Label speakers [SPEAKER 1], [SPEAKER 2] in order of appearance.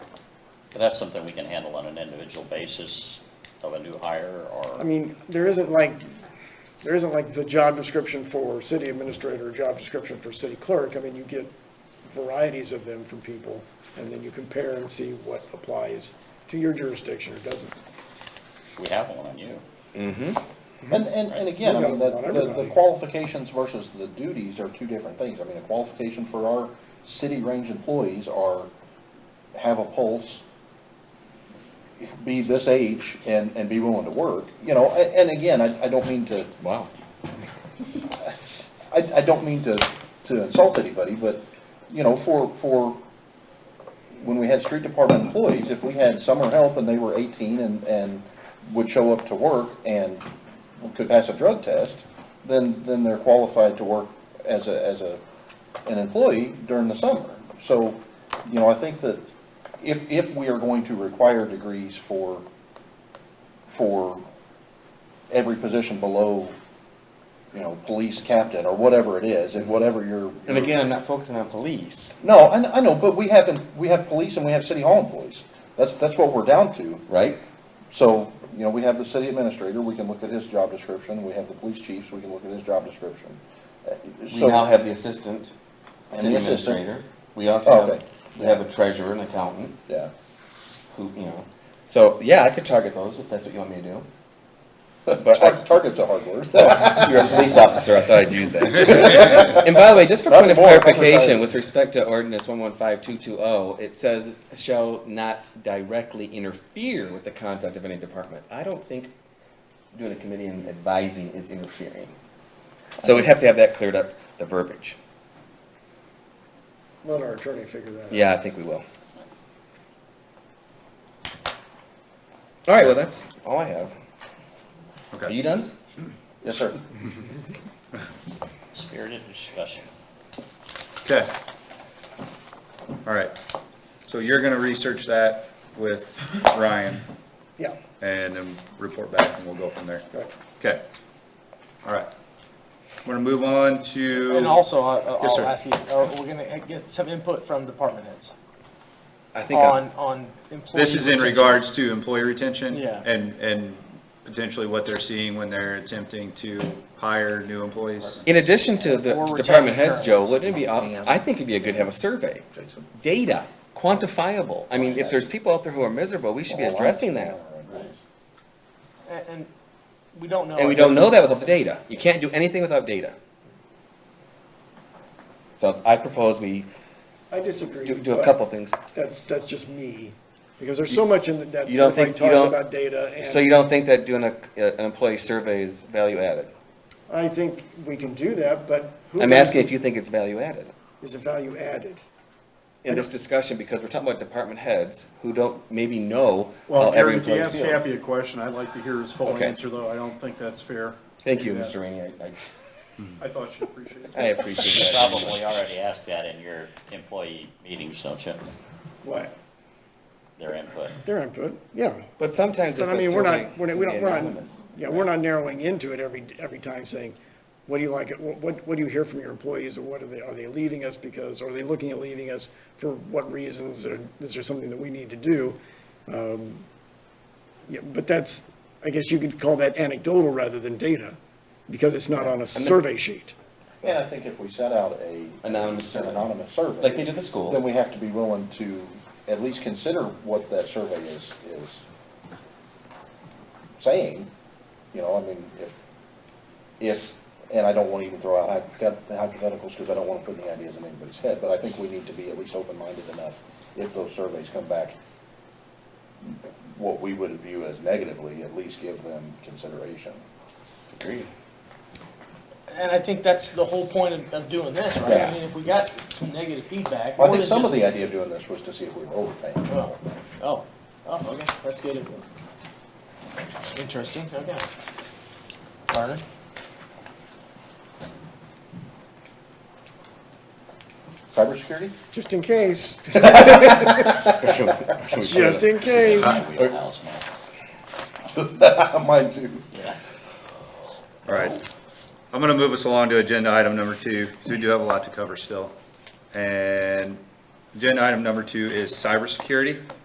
[SPEAKER 1] But that's something we can handle on an individual basis of a new hire
[SPEAKER 2] I
[SPEAKER 1] or,
[SPEAKER 2] mean, there isn't like, there isn't like the job description for city administrator, or job description for city clerk. I mean, you get varieties of them from people, and then you compare and see what applies to your jurisdiction or doesn't.
[SPEAKER 1] we have one on you.
[SPEAKER 3] And, and, and again, I mean,
[SPEAKER 2] We
[SPEAKER 3] the,
[SPEAKER 2] got one on
[SPEAKER 3] the- the
[SPEAKER 2] everybody.
[SPEAKER 3] qualifications versus the duties are two different things. I mean, a qualification for our city range employees are have a pulse, be this age and, and be willing to work, you know, a- and again, I, I don't mean to,
[SPEAKER 4] Wow.
[SPEAKER 3] I, I don't mean to, to insult anybody, but, you know, for, for, when we had street department employees, if we had summer help and they were eighteen and, and would show up to work and could pass a drug test, then, then they're qualified to work as a, as a, an employee during the summer. So, you know, I think that if, if we are going to require degrees for, for every position below, you know, police captain or whatever it is, and whatever your.
[SPEAKER 4] And again, I'm not focusing on police.
[SPEAKER 3] No, I, kn- I know, but we have, in- we have police and we have city hall employees. That's, that's what we're down to.
[SPEAKER 4] Right.
[SPEAKER 3] So, you know, we have the city administrator, we can look at his job description, we have the police chiefs, we can look at his job description. Uh,
[SPEAKER 4] We
[SPEAKER 3] so-
[SPEAKER 4] now have the assistant
[SPEAKER 3] And
[SPEAKER 4] city
[SPEAKER 3] the assistant.
[SPEAKER 4] administrator. We also have,
[SPEAKER 3] Okay.
[SPEAKER 4] we have a treasurer and accountant
[SPEAKER 3] Yeah,
[SPEAKER 4] who, you know. So, yeah, I could target those if that's what you want me to do. But I,
[SPEAKER 3] Tar- target's a hard word.
[SPEAKER 4] You're a police officer, I thought I'd use that. And by the way, just for
[SPEAKER 3] Not
[SPEAKER 4] point of
[SPEAKER 3] more,
[SPEAKER 4] clarification,
[SPEAKER 3] advertising.
[SPEAKER 4] with respect to ordinance 115220, oh, it says shall not directly interfere with the conduct of any department. I don't think doing a committee and advising is interfering. So we'd have to have that cleared up, the verbiage.
[SPEAKER 2] Let our attorney figure that out.
[SPEAKER 4] Yeah, I think we will. All right, well, that's all Oh, I have. Are you done?
[SPEAKER 3] Yes, sir.
[SPEAKER 1] Spirited discussion.
[SPEAKER 5] Okay. All right. So you're gonna research that with Ryan
[SPEAKER 2] Yeah,
[SPEAKER 5] and then report back and we'll go from there.
[SPEAKER 2] right.
[SPEAKER 5] Okay. All right. I'm gonna move on to.
[SPEAKER 6] And also, I-
[SPEAKER 5] Yes, sir.
[SPEAKER 6] I'll ask you, are we gonna get some input from department heads
[SPEAKER 4] I think I'm-
[SPEAKER 6] on, on employee?
[SPEAKER 5] This is in
[SPEAKER 6] retention?
[SPEAKER 5] regards to employee retention?
[SPEAKER 6] Yeah.
[SPEAKER 5] And, and potentially what they're seeing when they're attempting to hire new employees?
[SPEAKER 4] In addition to the
[SPEAKER 6] Or
[SPEAKER 4] department
[SPEAKER 6] retain
[SPEAKER 4] heads, Joe,
[SPEAKER 6] current.
[SPEAKER 4] wouldn't it be, obs- I think it'd be a good to have a survey. Data, quantifiable. I mean, if there's people out there who are miserable, we should be addressing that.
[SPEAKER 6] And, and we don't know.
[SPEAKER 4] And we
[SPEAKER 6] I guess
[SPEAKER 4] don't know that without the data. You can't do anything without data. So I propose we
[SPEAKER 2] I disagree.
[SPEAKER 4] do, do a
[SPEAKER 2] but
[SPEAKER 4] couple things.
[SPEAKER 2] That's, that's just me, because there's so much in that- that,
[SPEAKER 4] You don't
[SPEAKER 2] everybody
[SPEAKER 4] think- you
[SPEAKER 2] talks
[SPEAKER 4] don't-
[SPEAKER 2] about data, and.
[SPEAKER 4] So you don't think that doing a, an employee survey is value added?
[SPEAKER 2] I think we can do that, but. who
[SPEAKER 4] I'm asking if you think it's value added
[SPEAKER 2] Is a value added?
[SPEAKER 4] in this discussion, because we're talking about department heads who don't maybe know how
[SPEAKER 7] Well,
[SPEAKER 4] every
[SPEAKER 7] Gary, if you
[SPEAKER 4] employee
[SPEAKER 7] ask
[SPEAKER 4] feels.
[SPEAKER 7] Happy a question, I'd like to hear his full
[SPEAKER 4] Okay.
[SPEAKER 7] answer, though. I don't think that's fair.
[SPEAKER 4] Thank you,
[SPEAKER 7] Yeah.
[SPEAKER 4] Mr. Rainey. I, I-
[SPEAKER 7] I thought you appreciated it.
[SPEAKER 4] I
[SPEAKER 1] You
[SPEAKER 4] appreciate that.
[SPEAKER 1] probably already asked that in your employee meetings, don't you?
[SPEAKER 2] What?
[SPEAKER 1] Their input.
[SPEAKER 2] Their input, yeah.
[SPEAKER 4] But sometimes if
[SPEAKER 2] But I
[SPEAKER 4] it's
[SPEAKER 2] mean, we're
[SPEAKER 4] survey
[SPEAKER 2] not, we're
[SPEAKER 4] can
[SPEAKER 2] not, we
[SPEAKER 4] be
[SPEAKER 2] don't, we're not,
[SPEAKER 4] anonymous.
[SPEAKER 2] yeah, we're not narrowing into it every, every time saying, what do you like, what- what, what do you hear from your employees, or what are they, are they leaving us because, are they looking at leaving us for what reasons, or is there something that we need to do? Um, Yeah, but that's, I guess you could call that anecdotal rather than data, because it's not on a survey sheet.
[SPEAKER 3] And I think if we set out a.
[SPEAKER 4] Anonymous survey.
[SPEAKER 3] Anonymous survey.
[SPEAKER 4] Like they do the school.
[SPEAKER 3] Then we have to be willing to at least consider what that survey is, is saying, you know, I mean, if, if, and I don't want to even throw out hypothet- hypotheticals because I don't want to put any ideas in anybody's head, but I think we need to be at least open-minded enough if those surveys come back, what we would view as negatively, at least give them consideration.
[SPEAKER 4] Agreed.
[SPEAKER 6] And I think that's the whole point of, of doing this, right?
[SPEAKER 3] Yeah.
[SPEAKER 6] I mean, if we got some negative feedback.
[SPEAKER 3] Well, I
[SPEAKER 6] more
[SPEAKER 3] think
[SPEAKER 6] than
[SPEAKER 3] some of
[SPEAKER 6] just-
[SPEAKER 3] the idea of doing this was to see if we were overpaying.
[SPEAKER 6] Oh, oh, oh, okay, that's good. input. Interesting, okay. Learning.
[SPEAKER 3] Cybersecurity?
[SPEAKER 2] Just in case, just
[SPEAKER 4] Just
[SPEAKER 2] in case.
[SPEAKER 1] Wheelhouse, man.
[SPEAKER 3] Mine too.
[SPEAKER 5] All right. I'm gonna move us along to agenda item number two, because we do have a lot to cover still. And agenda item number two is cybersecurity.